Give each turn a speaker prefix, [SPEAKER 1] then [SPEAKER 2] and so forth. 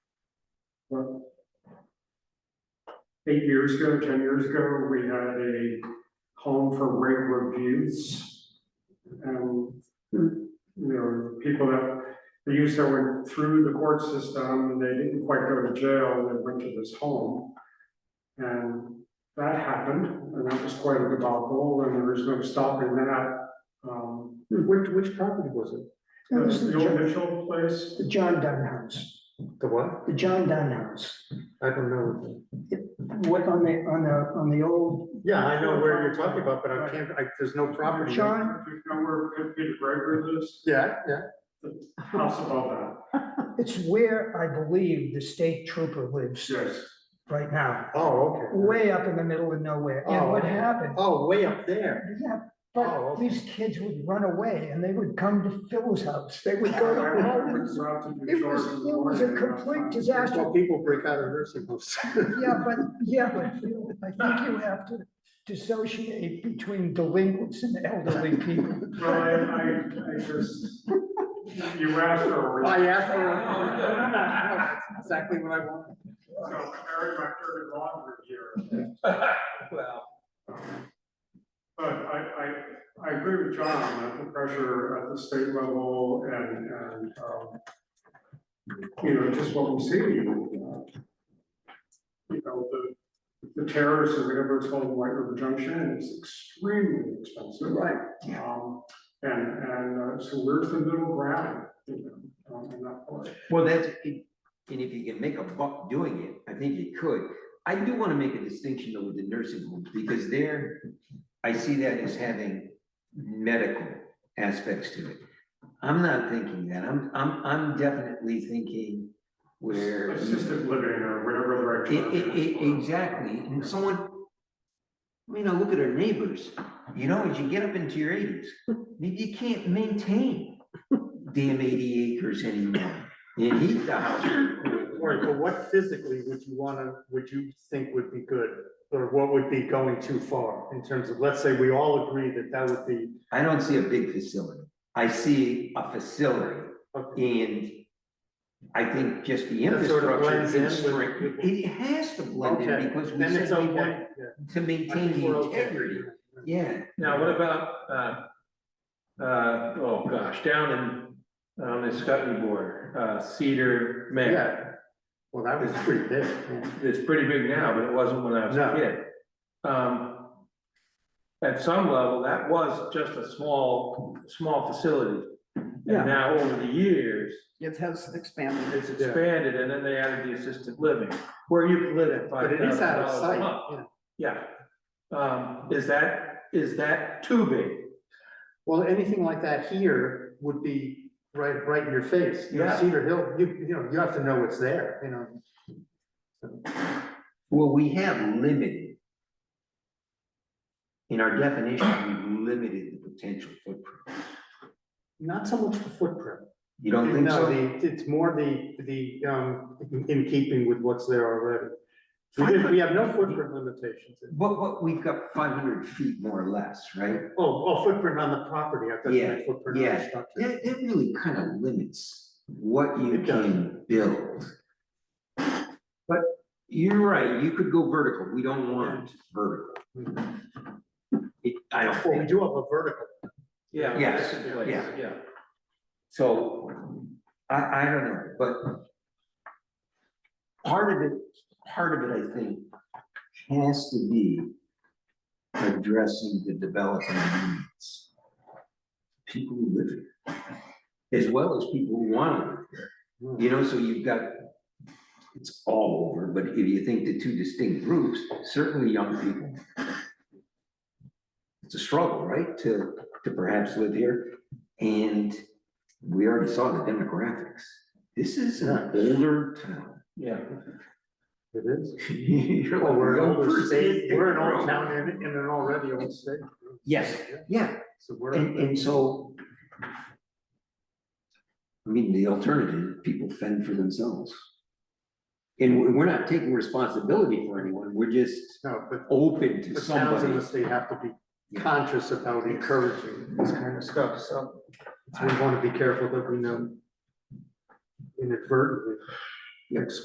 [SPEAKER 1] well, Eight years ago, ten years ago, we had a home for regular youths. And, you know, people that, the youths that went through the court system, and they didn't quite go to jail, they went to this home. And that happened, and that was quite a debacle, and there was no stopping that. Um,
[SPEAKER 2] Which, which property was it?
[SPEAKER 3] No, this
[SPEAKER 1] that's
[SPEAKER 3] is
[SPEAKER 1] Uh, the
[SPEAKER 3] Hmm. the
[SPEAKER 1] old
[SPEAKER 3] John-
[SPEAKER 1] Mitchell place,
[SPEAKER 3] the John Dunn House,
[SPEAKER 2] The what?
[SPEAKER 3] the John Dunn House.
[SPEAKER 2] I don't know.
[SPEAKER 3] What on the, on the, on the old,
[SPEAKER 2] Yeah, I know where you're talking about, but I can't, I, there's no property.
[SPEAKER 3] John-
[SPEAKER 1] if you know where Peter Gregory lives,
[SPEAKER 2] Yeah, yeah.
[SPEAKER 1] house above that,
[SPEAKER 3] it's where I believe the state trooper lives
[SPEAKER 1] yes.
[SPEAKER 3] right now,
[SPEAKER 2] Oh, okay.
[SPEAKER 3] way up in the middle of nowhere. And what
[SPEAKER 2] Oh.
[SPEAKER 3] happened?
[SPEAKER 2] Oh, way up there.
[SPEAKER 3] Yeah,
[SPEAKER 2] Oh,
[SPEAKER 3] but
[SPEAKER 2] okay.
[SPEAKER 3] these kids would run away and they would come to Phil's house. They would
[SPEAKER 1] I
[SPEAKER 3] go to her
[SPEAKER 1] remember
[SPEAKER 3] house.
[SPEAKER 1] going out to New
[SPEAKER 3] It was,
[SPEAKER 1] York in the
[SPEAKER 3] it was a
[SPEAKER 1] morning, uh,
[SPEAKER 3] complete disaster.
[SPEAKER 2] Well, people break out of nursing homes.
[SPEAKER 3] Yeah, but, yeah, but Phil, I think you have to dissociate between delinquents and elderly people.
[SPEAKER 1] Well, I, I, I just, you asked for a
[SPEAKER 2] I
[SPEAKER 1] reason.
[SPEAKER 2] asked for. That's Exactly what I wanted.
[SPEAKER 1] So I married my third and longer year.
[SPEAKER 2] Well.
[SPEAKER 1] But I, I, I agree with John that the pressure at the state level and, and, um, you know, just what we see. uh, You know, the, the terrorists or whatever it's called, in White River Junction is extremely expensive.
[SPEAKER 3] Right.
[SPEAKER 1] Um, and, and uh, so where's the middle ground, you know, um, in that part?
[SPEAKER 4] Well, that's, it- and if you can make a buck doing it, I think you could. I do want to make a distinction though with the nursing homes, because there, I see that as having medical aspects to it. I'm not thinking that. I'm, I'm, I'm definitely thinking where.
[SPEAKER 1] Assisted living or whatever the
[SPEAKER 4] E-
[SPEAKER 1] right. term
[SPEAKER 4] e-
[SPEAKER 1] is.
[SPEAKER 4] e- exactly, and someone, I mean, I look at our neighbors, you know, as you get up into your eighties, you can't maintain damn eighty acres anymore, and heat the
[SPEAKER 2] All right,
[SPEAKER 4] house.
[SPEAKER 2] but what physically would you wanna, would you think would be good? Or what would be going too far in terms of, let's say we all agree that that would be.
[SPEAKER 4] I don't see a big facility, I see a facility,
[SPEAKER 2] okay,
[SPEAKER 4] and I think just the
[SPEAKER 2] That sort of
[SPEAKER 4] infrastructure
[SPEAKER 2] blends in with-
[SPEAKER 4] constraint, it has to blend
[SPEAKER 2] Okay,
[SPEAKER 4] in, because we
[SPEAKER 2] Then
[SPEAKER 4] said
[SPEAKER 2] it's
[SPEAKER 4] we want
[SPEAKER 2] okay. yeah.
[SPEAKER 4] to
[SPEAKER 2] I think
[SPEAKER 4] maintain
[SPEAKER 2] we're
[SPEAKER 4] the
[SPEAKER 2] okay.
[SPEAKER 4] integrity, yeah.
[SPEAKER 5] Now, what about, uh, uh, oh gosh, down in, on the Scotty border, uh, Cedar Man.
[SPEAKER 2] Yeah. Well, that was pretty big. yeah.
[SPEAKER 5] It's pretty big now, but it wasn't when I was a
[SPEAKER 2] No.
[SPEAKER 5] kid. Um, at some level, that was just a small, small facility. And
[SPEAKER 6] Yeah.
[SPEAKER 5] now over the years,
[SPEAKER 6] It has expanded.
[SPEAKER 5] it's expanded and then they added the assisted living, where you can live at
[SPEAKER 2] But
[SPEAKER 5] five
[SPEAKER 2] it is
[SPEAKER 5] thousand
[SPEAKER 2] out of
[SPEAKER 5] dollars a month.
[SPEAKER 2] sight. yeah.
[SPEAKER 5] Yeah. Um, is that, is that too big?
[SPEAKER 2] Well, anything like that here would be right, right in your face. You know,
[SPEAKER 5] Yeah.
[SPEAKER 2] Cedar Hill, you, you know, you have to know it's there, you know.
[SPEAKER 4] Well, we have limited. In our definition, we've limited the potential footprint.
[SPEAKER 2] Not so much the footprint.
[SPEAKER 4] You don't think
[SPEAKER 2] No,
[SPEAKER 4] so?
[SPEAKER 2] the, it's more the, the, um, in keeping with what's there already. We did, we have no footprint limitations.
[SPEAKER 4] But, but we've got five hundred feet more or less, right?
[SPEAKER 2] Oh, oh, footprint on the property, I thought you meant footprint on the
[SPEAKER 4] yeah.
[SPEAKER 2] structure.
[SPEAKER 4] That, that really kind of limits what you
[SPEAKER 2] It does.
[SPEAKER 4] can build. But you're right, you could go vertical. We don't want vertical.
[SPEAKER 2] Hmm.
[SPEAKER 4] It, I don't
[SPEAKER 2] Well, we
[SPEAKER 4] think,
[SPEAKER 2] do have a vertical,
[SPEAKER 5] Yeah.
[SPEAKER 4] Yes,
[SPEAKER 5] that's a place,
[SPEAKER 4] yeah.
[SPEAKER 5] Yeah.
[SPEAKER 4] so, I, I don't know, but. Part of it, part of it, I think, has to be addressing the development needs. People who live here, as well as people who want to live here, you know, so you've got, it's all over, but if you think the two distinct groups, certainly young people. It's a struggle, right, to, to perhaps live here, and we already saw the demographics. This is an older town.
[SPEAKER 5] Yeah.
[SPEAKER 2] it is.
[SPEAKER 4] You're like,
[SPEAKER 2] Well, we're an
[SPEAKER 4] "Well,
[SPEAKER 2] older
[SPEAKER 4] first
[SPEAKER 2] state,
[SPEAKER 4] they-
[SPEAKER 2] we're an
[SPEAKER 4] they're
[SPEAKER 2] old
[SPEAKER 4] old."
[SPEAKER 2] town in, in an already old state.
[SPEAKER 4] Yes,
[SPEAKER 2] Yeah,
[SPEAKER 4] yeah,
[SPEAKER 2] So we're.
[SPEAKER 4] and, and so. I mean, the alternative, people fend for themselves. And we're, we're not taking responsibility for anyone, we're just
[SPEAKER 2] No, but
[SPEAKER 4] open to
[SPEAKER 2] the towns in
[SPEAKER 4] somebody.
[SPEAKER 2] the state have to be conscious about encouraging this kind of stuff, so. We want to be careful that we know inadvertently.
[SPEAKER 4] Yes.